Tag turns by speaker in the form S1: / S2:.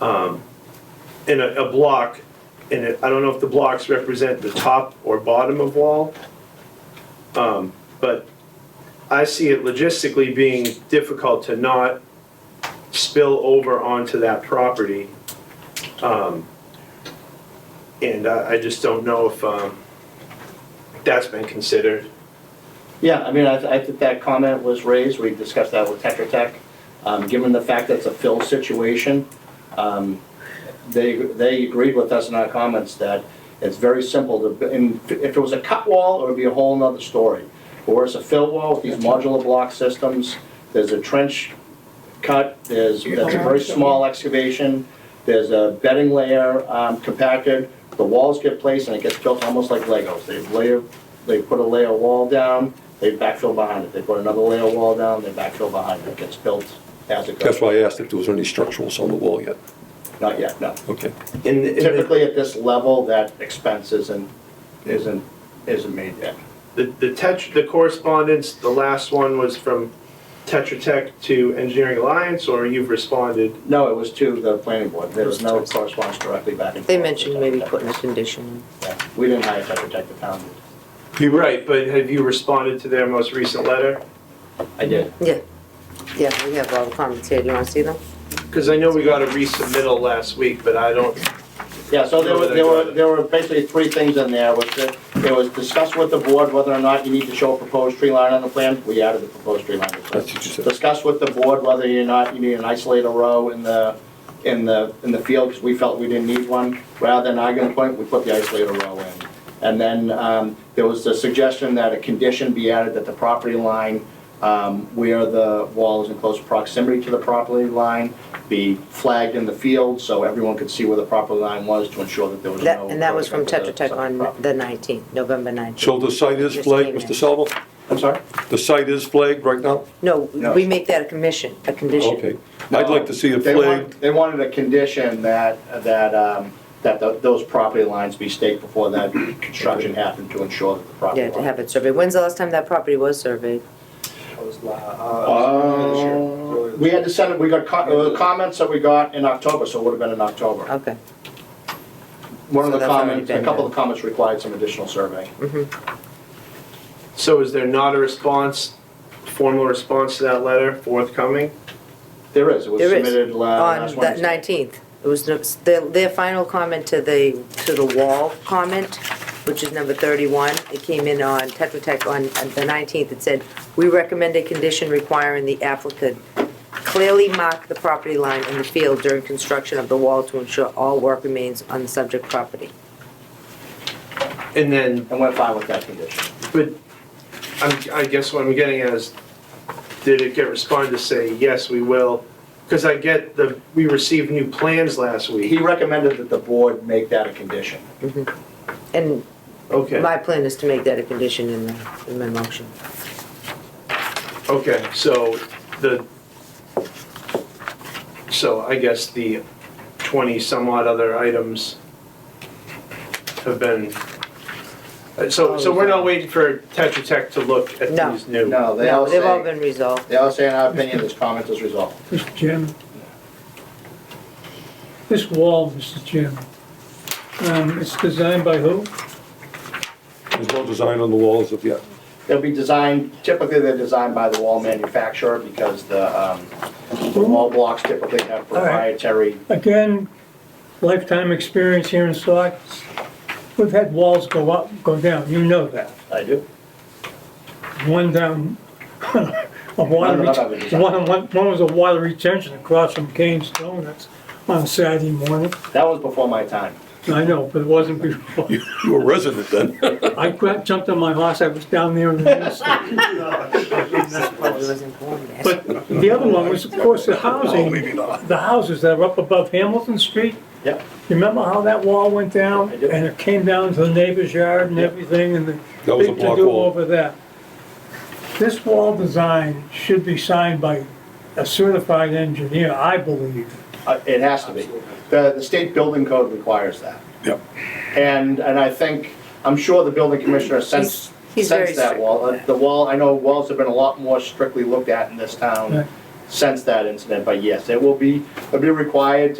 S1: um, in a, a block, and it- I don't know if the blocks represent the top or bottom of wall, um, but I see it logistically being difficult to not spill over onto that property. Um, And I, I just don't know if um, that's been considered.
S2: Yeah, I mean, I, I think that comment was raised, we discussed that with Tetra Tech. Um, given the fact that it's a fill situation, um, they, they agreed with us in our comments that it's very simple to, and if it was a cut wall, it would be a whole nother story. But where it's a fill wall with these modular block systems, there's a trench cut, there's, that's a very small excavation, there's a bedding layer, um, compacted, the walls get placed and it gets built almost like Legos. They layer, they put a layer wall down, they backfill behind it, they put another layer wall down, they backfill behind it, it gets built as it
S3: That's
S2: goes.
S3: why I asked if there was any structurals on the wall yet.
S2: Not yet, no.
S3: Okay.
S1: In the- in the-
S2: Typically at this level, that expense isn't, isn't, isn't made yet.
S1: The, the Tetra, the correspondence, the last one was from Tetra Tech to Engineering Alliance, or you've responded?
S2: No, it was to the planning board, there was no correspondence directly back and forth.
S4: They
S2: with
S4: mentioned maybe
S2: Tetra Tech.
S4: putting a condition
S2: Yeah, We didn't hire Tetra Tech, the town did.
S1: You're right, but have you responded to their most recent letter?
S2: I did.
S4: in. Yeah, yeah, we have all the comments here, do you wanna see them?
S1: Because I know we got a resubmittal last week, but I don't,
S2: Yeah, so there were, there were, there were basically three things in there, which, uh, it was discussed with the board whether or not you need to show a proposed tree line on the plan, we added the proposed tree line.
S3: That's what you said.
S2: Discussed with the board whether or not you need an isolator row in the, in the, in the field, because we felt we didn't need one, rather than arguing point, we put the isolator row in. And then, um, there was the suggestion that a condition be added that the property line, um, where the wall is in close proximity to the property line, be flagged in the field, so everyone could see where the property line was to ensure that there was
S4: That,
S2: no.
S4: and that was from
S2: overlap
S4: Tetra
S2: with
S4: Tech
S2: the
S4: on
S2: property.
S4: the nineteenth, November nineteenth.
S3: So the site is
S4: Just
S3: flagged,
S4: came in.
S3: Mr. Salvo?
S2: I'm sorry?
S3: The site is flagged right now?
S4: No,
S2: No.
S4: we make that a commission, a condition.
S3: Okay. I'd like to see it
S2: They
S3: flagged.
S2: want- They wanted a condition that, that, um, that tho- those property lines be staked before that construction happened to ensure that the property
S4: Yeah,
S2: line.
S4: to have it surveyed. When's the last time that property was surveyed? Oh.
S2: Uh, We had to send it, we got co- uh, comments that we got in October, so it would have been in October.
S4: Okay.
S2: One of the
S4: Oh, So that's already
S2: comments, a
S4: been
S2: couple
S4: done.
S2: of the comments required some additional survey.
S1: so is there not a response, formal response to that letter forthcoming?
S2: There is, it was
S4: There is.
S2: submitted la- Uh, last
S4: On the
S2: Wednesday.
S4: nineteenth. It was, no- their, their final comment to the, to the wall comment, which is number thirty-one. It came in on Tetra Tech on on the nineteenth. It said, "We recommend a condition requiring the applicant clearly mark the property line in the field during construction of the wall to ensure all work remains on the subject property."
S1: And then,
S2: And we're fine with that condition.
S1: but I'm, I guess what I'm getting at is, did it get responded to say, yes, we will? Because I get the, we received new plans last
S2: He
S1: week.
S2: recommended that the board make that a condition.
S4: And
S1: Okay.
S4: my plan is to make that a condition in the, in my motion.
S1: Okay, so the, so I guess the 20 some odd other items have been, uh, so, so we're not waiting for Tetra Tech to look at
S4: No.
S1: these new.
S2: No, they all
S4: No, they've all
S2: say,
S4: been resolved.
S2: they all say in our opinion, this comment is resolved.
S5: Mr. Chairman. This wall, Mr. Chairman, um, it's designed by who?
S3: There's no design on the walls of yet.
S2: They'll be designed, typically they're designed by the wall manufacturer because the, um, the wall blocks typically have
S5: right.
S2: proprietary.
S5: Again, lifetime experience here in Stock. We've had walls go up, go down, you know that.
S2: I do.
S5: One down, a water,
S2: No, no, no,
S5: ret-
S2: no.
S5: one, one one was a water retention across from Kane's Donuts on a Saturday morning.
S2: That was before my time.
S5: I know, but it wasn't before.
S3: You you were resident then.
S5: I grabbed, jumped on my horse, I was down there in the instant.
S4: Probably wasn't born yet.
S5: But the other one was, of course, the
S3: Oh,
S5: housing.
S3: maybe not.
S5: the houses that are up above Hamilton Street,
S2: Yep.
S5: you remember how that wall went down?
S2: I do.
S5: And it came down to the neighbor's yard and
S2: Yep.
S5: everything, and the
S3: That was a
S5: big
S3: block
S5: to-do
S3: wall.
S5: over that. This wall design should be signed by a certified engineer, I believe.
S2: Uh, It has to be. The, the state building code requires that.
S3: Yep.
S2: And, and I think, I'm sure the building commissioner sensed,
S4: he's very
S2: sensed that
S4: strict
S2: wall.
S4: with
S2: Uh, The wall, I know walls have been a lot more strictly looked at in this
S5: Right.
S2: town since that incident, but yes, it will be, it'll be required to